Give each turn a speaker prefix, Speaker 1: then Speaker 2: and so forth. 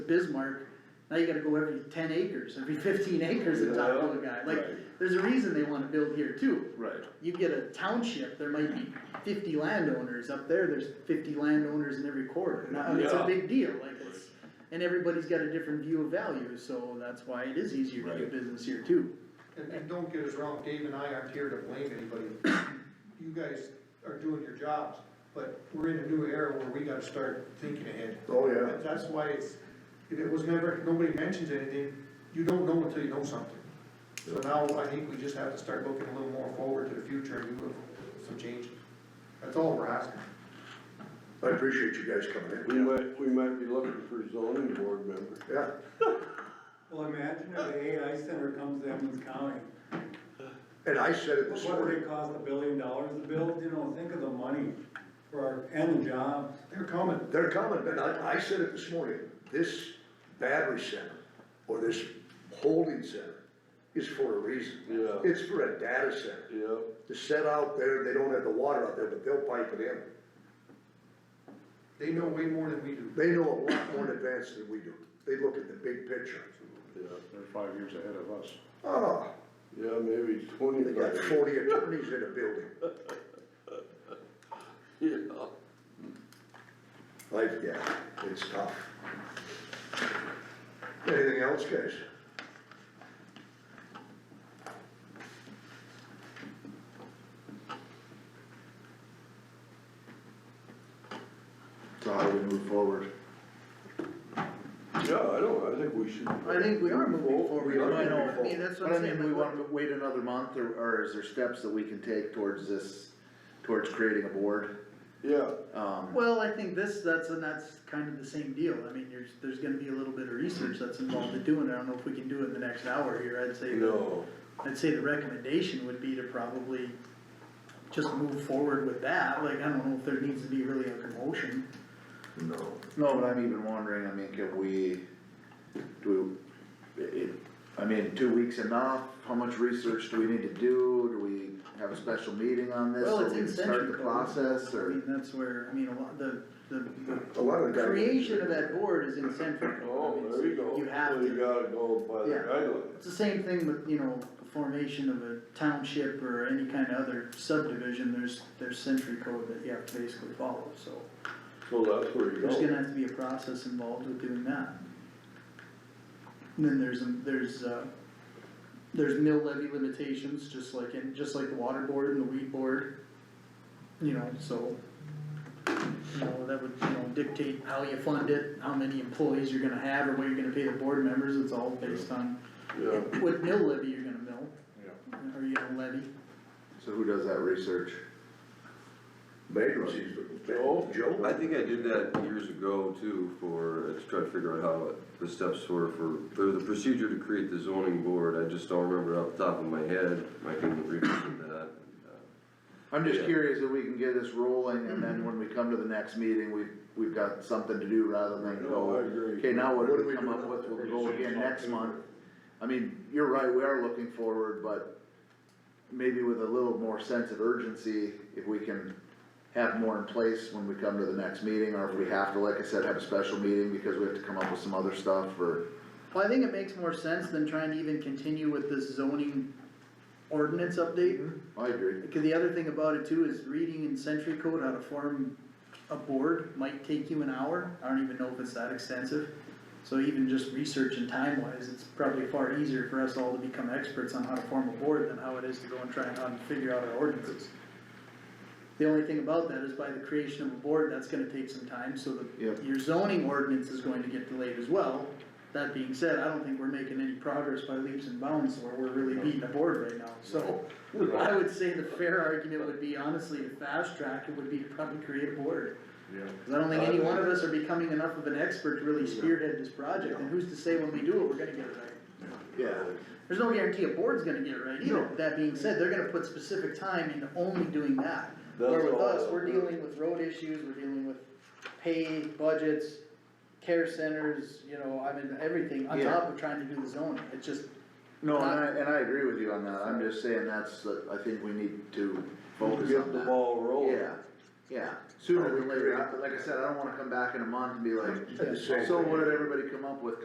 Speaker 1: Bismarck, now you gotta go every ten acres, every fifteen acres and talk to a guy, like,
Speaker 2: Right.
Speaker 1: there's a reason they wanna build here too.
Speaker 2: Right,
Speaker 1: You get a township, there might be fifty landowners, up there, there's fifty landowners in every quarter, and I- it's a
Speaker 2: Yeah.
Speaker 1: big deal, like, it's, and everybody's got a different view of value, so that's why it is easier to do
Speaker 2: Right.
Speaker 1: business here too.
Speaker 3: And, and don't get us wrong, Dave and I aren't here to blame anybody. You guys are doing your jobs, but we're in a new era where we gotta start thinking ahead.
Speaker 4: Oh, yeah.
Speaker 3: That- That's why it's, if it was never, nobody mentions anything, you don't know until you know something. So now I think we just have to start looking a little more forward to the future and doing some changes. That's all we're asking.
Speaker 4: I appreciate you guys coming
Speaker 2: we
Speaker 4: in.
Speaker 2: might, we might be looking for zoning board members.
Speaker 4: Yeah,
Speaker 5: Well, imagine if the AI center comes to Evans County,
Speaker 4: and I said it this
Speaker 5: what would
Speaker 4: morning,
Speaker 5: it cost a billion dollars to build, you know, think of the money for, our and the jobs.
Speaker 3: They're coming.
Speaker 4: they're coming, but I, I said it this morning, this battery center, or this holding center is for a reason.
Speaker 2: Yeah.
Speaker 4: It's for a data center,
Speaker 2: Yep.
Speaker 4: to set out there, they don't have the water out there, but they'll pipe it in.
Speaker 3: They know way more than we do.
Speaker 4: They know a lot more in advance than we do, they look at the big picture.
Speaker 2: Yeah,
Speaker 6: They're five years ahead of us.
Speaker 4: Oh,
Speaker 2: yeah, maybe twenty.
Speaker 4: they got forty attorneys in a building,
Speaker 2: Yeah,
Speaker 4: like, yeah, it's tough. Anything else, guys?
Speaker 6: So how do we move forward?
Speaker 2: yeah, I don't, I think we should.
Speaker 1: I think we are moving forward,
Speaker 4: We are
Speaker 1: I know, I
Speaker 4: moving
Speaker 1: mean, that's what
Speaker 7: But I
Speaker 1: I'm saying.
Speaker 7: mean, do we
Speaker 1: like,
Speaker 7: wanna wait another month, or, or is there steps that we can take towards this, towards creating a board?
Speaker 2: Yeah,
Speaker 7: Um,
Speaker 1: Well, I think this, that's, and that's kind of the same deal, I mean, there's, there's gonna be a little bit of research that's involved in doing it, I don't know if we can do it in the next hour here, I'd say.
Speaker 2: no,
Speaker 1: I'd say the recommendation would be to probably just move forward with that, like, I don't know if there needs to be really a commotion.
Speaker 4: No.
Speaker 7: no, but I'm even wondering, I mean, can we, do we, it, I mean, two weeks enough? How much research do we need to do? Do we have a special meeting on this,
Speaker 1: Well,
Speaker 7: so
Speaker 1: it's
Speaker 7: we can
Speaker 1: in
Speaker 7: start
Speaker 1: century
Speaker 7: the
Speaker 1: code.
Speaker 7: process,
Speaker 1: I mean,
Speaker 7: or?
Speaker 1: that's where, I mean, a lot, the, the,
Speaker 4: A lot of
Speaker 1: the
Speaker 4: the guys.
Speaker 1: creation of that board is in central.
Speaker 2: oh, there you go,
Speaker 1: You have
Speaker 2: so
Speaker 1: to,
Speaker 2: you gotta go by the
Speaker 1: Yeah.
Speaker 2: guidelines.
Speaker 1: it's the same thing with, you know, the formation of a township or any kind of other subdivision, there's, there's century code that you have to basically follow, so.
Speaker 2: So that's where you
Speaker 1: There's
Speaker 2: go.
Speaker 1: gonna have to be a process involved with doing that. And then there's, um, there's, uh, there's mill levy limitations, just like in, just like the water board and the weed board. You know, so, you know, that would, you know, dictate how you fund it, how many employees you're gonna have, or what you're gonna pay the board members, it's all based on
Speaker 2: Yeah,
Speaker 1: what mill levy you're gonna mill. Or you gonna levy,
Speaker 7: So who does that research?
Speaker 4: Bankruptcies,
Speaker 2: Joe?
Speaker 4: but Joe.
Speaker 8: I think I did that years ago too for, to try to figure out how the steps were for, for the procedure to create the zoning board. I just don't remember off the top of my head. I can revisit that.
Speaker 7: I'm just
Speaker 8: Yeah.
Speaker 7: curious if we can get this rolling, and then when we come to the next meeting, we've, we've got something to do rather than
Speaker 2: no, I
Speaker 7: go.
Speaker 2: agree.
Speaker 7: Okay, now what
Speaker 4: What
Speaker 7: do
Speaker 4: do
Speaker 7: we
Speaker 4: we
Speaker 7: come
Speaker 4: do
Speaker 7: up
Speaker 4: now?
Speaker 7: with, we'll
Speaker 6: Pretty
Speaker 7: go
Speaker 6: soon
Speaker 7: again
Speaker 6: it's
Speaker 7: next month.
Speaker 6: October.
Speaker 7: I mean, you're right, we are looking forward, but maybe with a little more sense of urgency, if we can have more in place when we come to the next meeting, or if we have to, like I said, have a special meeting because we have to come up with some other stuff or.
Speaker 1: well, I think it makes more sense than trying to even continue with this zoning ordinance update.
Speaker 7: Hmm? I agree.
Speaker 1: Cause the other thing about it too is reading in century code how to form a board might take you an hour, I don't even know if it's that extensive. So even just research and time wise, it's probably far easier for us all to become experts on how to form a board than how it is to go and try and how to figure out our ordinances. The only thing about that is by the creation of a board, that's gonna take some time, so
Speaker 7: Yep.
Speaker 1: the, your zoning ordinance is going to get delayed as well. That being said, I don't think we're making any progress by leaps and bounds, or we're really beating the board right now, so. I would say the fair argument would be honestly to fast track, it would be to probably create a board.
Speaker 6: Yeah.
Speaker 1: Cause I don't think any one of us are becoming enough of an expert to really spearhead this project, and who's to say when we do it, we're gonna get it right.
Speaker 7: Yeah.
Speaker 1: There's no guarantee a board's gonna get it right either, that being said, they're gonna put specific time into only doing that. Where
Speaker 2: That's
Speaker 1: with
Speaker 2: all.
Speaker 1: us, we're dealing with road issues, we're dealing with pay, budgets, care centers, you know, I mean, everything, on
Speaker 7: Yeah.
Speaker 1: top of trying to do the zoning, it's just,
Speaker 7: No, and I, and I agree with you on that, I'm just saying that's, the- I think we need to focus
Speaker 2: Get
Speaker 7: on
Speaker 2: the
Speaker 7: that.
Speaker 2: ball rolling.
Speaker 7: Yeah, yeah, sooner than later, I- like I said, I don't wanna come back in a month and be like,
Speaker 4: At the same
Speaker 7: so what
Speaker 4: thing.
Speaker 7: did everybody come up